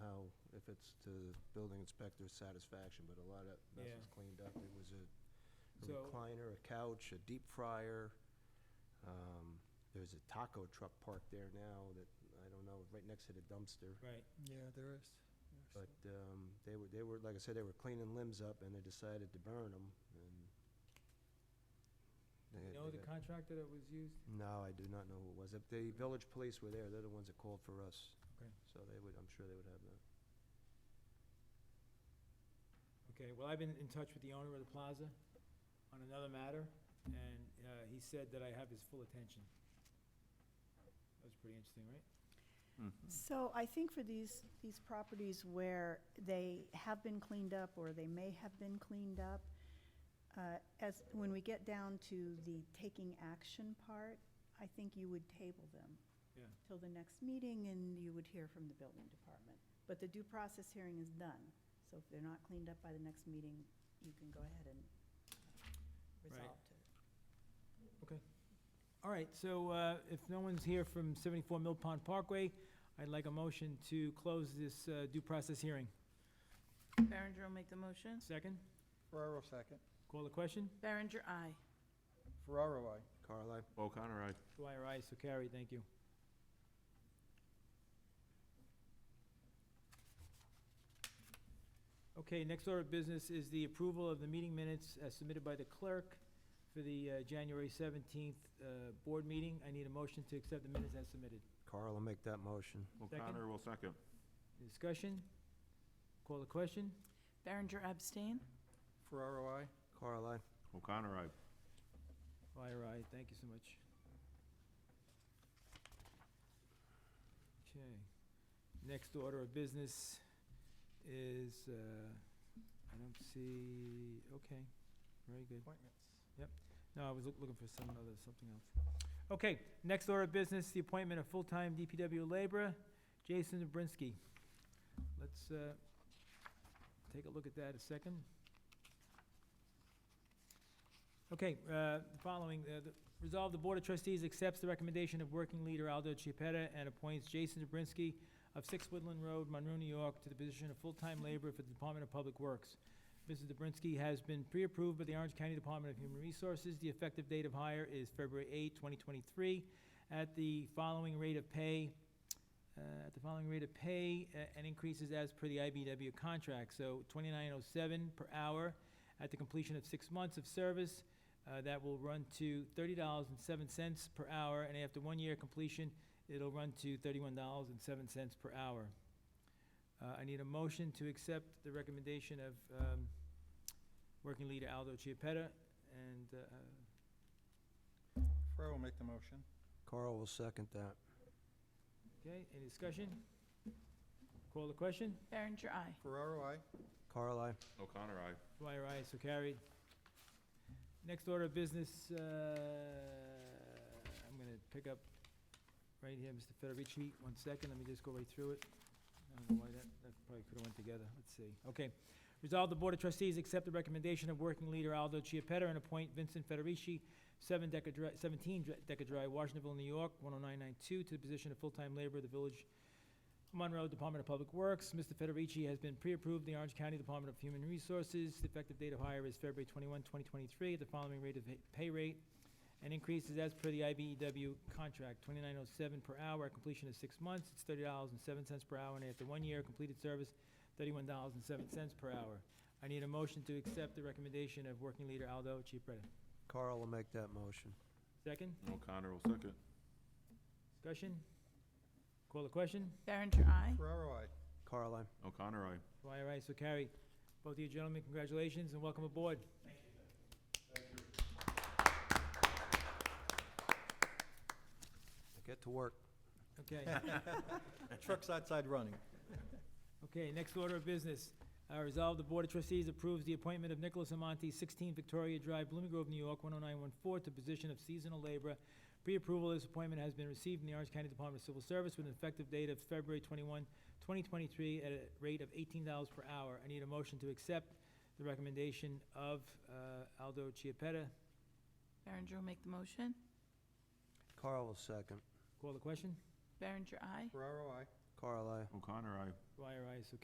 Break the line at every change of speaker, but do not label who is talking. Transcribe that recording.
it's to the building inspector's satisfaction, but a lot of mess
Yeah.
was cleaned up. It was a a
So-
recliner, a couch, a deep fryer. Um, There's a taco truck parked there now that, I don't know, right next to the dumpster.
Right.
Yeah, there is.
But um, they were, they were, like I said, they were cleaning limbs up and they decided to burn them and. they-
You know
they
the
got-
contractor that was used?
No, I do not know who it was. If The village police were there, they're the ones that called for us.
Okay.
So they would, I'm sure they would have that.
Okay, well, I've been in touch with the owner of the plaza on another matter, and uh, he said that I have his full attention. That was pretty interesting, right?
So I think for these, these properties where they have been cleaned up or they may have been cleaned up, uh, as, when we get down to the taking action part, I think you would table them
Yeah.
till the next meeting and you would hear from the building department. But the due process hearing is done, so if they're not cleaned up by the next meeting, you can go ahead and resolve to.
All right, so uh, if no one's here from 74 Mill Pond Parkway, I'd like a motion to close this uh, due process hearing.
Berenger will make the motion.
Second,
Ferraro, second.
call the question?
Berenger, aye.
Ferraro, I.
Carl, I-
O'Connor, aye.
Dwyer, aye, so carried, thank you. Okay, next order of business is the approval of the meeting minutes as submitted by the clerk for the uh, January 17th uh, board meeting. I need a motion to accept the minutes as submitted.
Carl will make that motion.
O'Connor will second.
Discussion? Call the question?
Berenger abstain.
Ferraro, I.
Carl, I-
O'Connor, aye.
Dwyer, aye, thank you so much. Okay, next order of business is, uh, I don't see, okay, very good.
Appointments.
No, I was loo- looking for some other, something else. Okay, next order of business, the appointment of full-time DPW laborer, Jason Zabrinsky. Let's, uh, take a look at that a second. Okay, uh, the following, uh, the- resolve the Board of Trustees accepts the recommendation of working leader Aldo Chiapetta and appoints Jason Zabrinsky of Six Woodland Road, Monroe, New York, to the position of full-time laborer for the Department of Public Works. Mrs. Dobrinsky has been pre-approved by the Orange County Department of Human Resources. The effective date of hire is February 8, 2023, at the following rate of pay, uh, at the following rate of pay, uh, and increases as per the IBW contract. So 2907 per hour at the completion of six months of service. uh, That will run to $30.07 per hour, and after one year completion, it'll run to $31.07 per hour. Uh, I need a motion to accept the recommendation of um, Working Leader Aldo Chiapetta and uh,
Ferraro will make the motion.
Carl will second that.
Okay, any discussion? Call the question?
Berenger, aye.
Ferraro, I.
Carl, I-
O'Connor, aye.
Dwyer, aye, so carried. Next order of business, uh, I'm gonna pick up right here, Mr. Federici, one second, let me just go right through it. I don't know why that, that probably could've went together, let's see, okay. Resolve the Board of Trustees accept the recommendation of working leader Aldo Chiapetta and appoint Vincent Federici, seven Decker Drive, seventeen Dre- Decker Drive, Washingtonville, New York, one oh nine nine two, to the position of full-time laborer of the village Monroe Department of Public Works. Mr. Federici has been pre-approved, the Orange County Department of Human Resources. The effective date of hire is February 21, 2023, at the following rate of pay- pay rate, and increases as per the IBEW contract, 2907 per hour, at completion of six months, it's $30.07 per hour, and after one year, completed service, $31.07 per hour. I need a motion to accept the recommendation of Working Leader Aldo Chiapretta.
Carl will make that motion.
Second,
O'Connor will second.
discussion? Call the question?
Berenger, aye.
Ferraro, I.
Carl, I-
O'Connor, aye.
Dwyer, aye, so carried. Both of you gentlemen, congratulations and welcome aboard.
get to work.
Okay.
Truck's outside running.
Okay, next order of business. Uh, Resolve the Board of Trustees approves the appointment of Nicholas Amonte, 16 Victoria Drive, Blooming Grove, New York, 10914, to position of seasonal laborer. Pre-approval of this appointment has been received in the Orange County Department of Civil Service with an effective date of February 21, 2023, at a rate of $18 per hour. I need a motion to accept the recommendation of uh, Aldo Chiapetta.
Berenger will make the motion.
Carl will second.
Call the question?
Berenger, aye.
Ferraro, I.
Carl, I-
O'Connor, aye.
Dwyer, aye, so